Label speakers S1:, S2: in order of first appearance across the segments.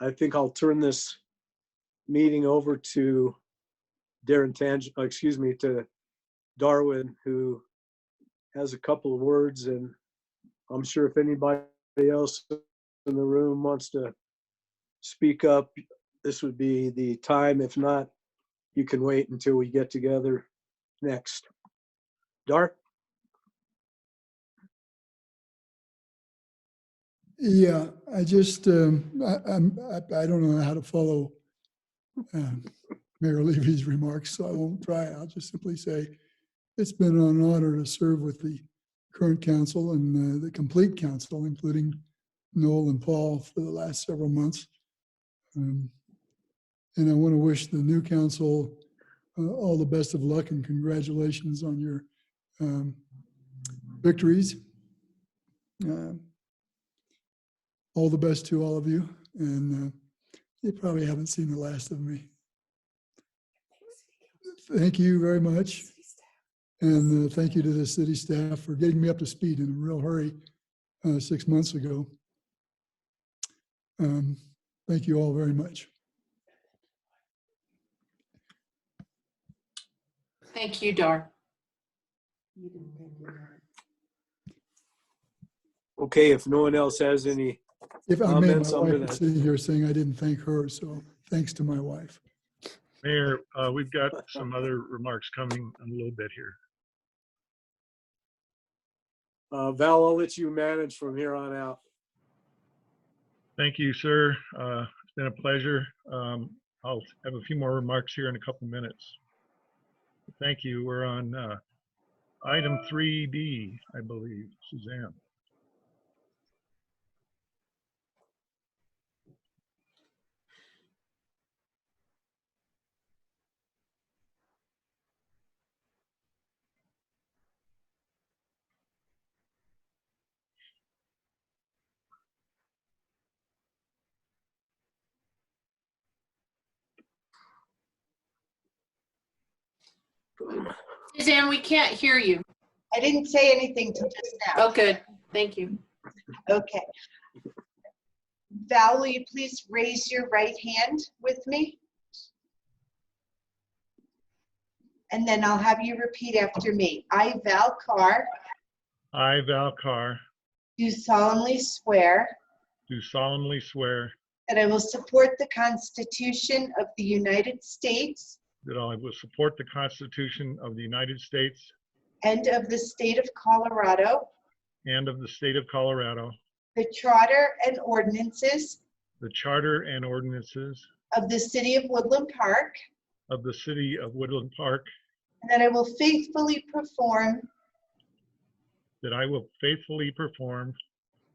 S1: I think I'll turn this meeting over to Darren Tang, uh, excuse me, to Darwin, who has a couple of words, and I'm sure if anybody else in the room wants to speak up, this would be the time. If not, you can wait until we get together next. Dar?
S2: Yeah, I just, um, I, I'm, I I don't know how to follow um, Mayor Levy's remarks, so I won't try. I'll just simply say, it's been an honor to serve with the current council and uh, the complete council, including Noel and Paul for the last several months. Um, And I want to wish the new council uh, all the best of luck and congratulations on your um, victories. Um, all the best to all of you. And uh, you probably haven't seen the last of me. Thank you very much. And uh, thank you to the city staff for getting me up to speed in a real hurry uh, six months ago. Um, Thank you all very much.
S3: Thank you, Dar.
S1: Okay, if no one else has any,
S2: If I may, my
S1: Comments, I'm
S2: wife
S1: gonna-
S2: is sitting here saying I didn't thank her, so thanks to my wife.
S4: Mayor, uh, we've got some other remarks coming in a little bit here.
S1: uh, Val, I'll let you manage from here on out.
S4: Thank you, sir. Uh, It's been a pleasure. Um, I'll have a few more remarks here in a couple minutes. Thank you. We're on uh, item 3D, I believe, Suzanne.
S3: Suzanne, we can't hear you.
S5: I didn't say anything till just now.
S3: Oh, good. Thank you.
S5: Okay. Val, will you please raise your right hand with me? And then I'll have you repeat after me. I, Val Carr,
S4: I, Val Carr,
S5: do solemnly swear
S4: do solemnly swear
S5: that I will support the Constitution of the United States
S4: that I will support the Constitution of the United States
S5: and of the state of Colorado,
S4: and of the state of Colorado,
S5: the charter and ordinances
S4: the charter and ordinances
S5: of the city of Woodland Park,
S4: of the city of Woodland Park,
S5: and that I will faithfully perform
S4: that I will faithfully perform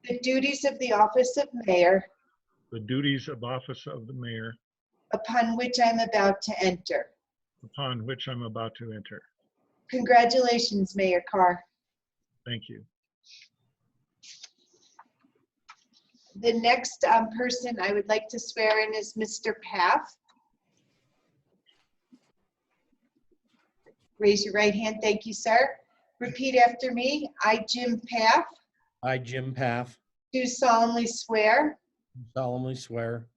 S5: The duties of the office of mayor
S4: the duties of office of the mayor
S5: upon which I'm about to enter.
S4: upon which I'm about to enter.
S5: Congratulations, Mayor Carr.
S4: Thank you.
S5: The next um, person I would like to swear in is Mr. Paff. Raise your right hand. Thank you, sir. Repeat after me. I, Jim Paff,
S6: I, Jim Paff,
S5: do solemnly swear
S6: solemnly swear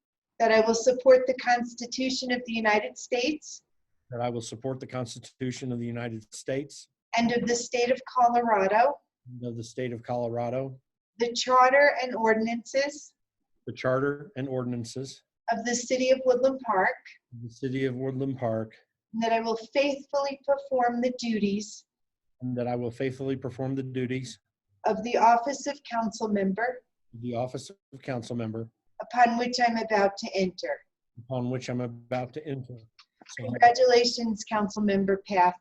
S5: that I will support the Constitution of the United States
S6: that I will support the Constitution of the United States
S5: and of the state of Colorado,
S6: and of the state of Colorado,
S5: the charter and ordinances
S6: the charter and ordinances
S5: of the city of Woodland Park,
S6: of the city of Woodland Park,
S5: And that I will faithfully perform the duties
S6: and that I will faithfully perform the duties
S5: of the office of council member
S6: of the office of council member
S5: upon which I'm about to enter.
S6: upon which I'm about to enter. So help
S5: Congratulations, council member Path.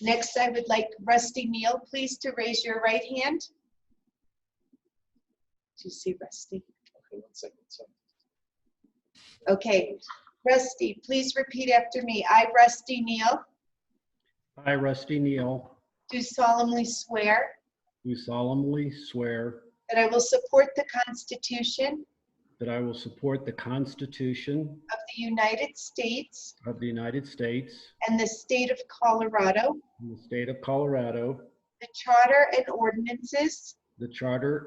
S5: Next, I would like Rusty Neal, please, to raise your right hand. Do you see Rusty? Okay, Rusty, please repeat after me. I, Rusty Neal,
S7: I, Rusty Neal,
S5: do solemnly swear
S7: do solemnly swear
S5: that I will support the Constitution
S7: that I will support the Constitution
S5: of the United States
S7: of the United States
S5: and the state of Colorado,
S7: and the state of Colorado,
S5: the charter and ordinances
S7: the charter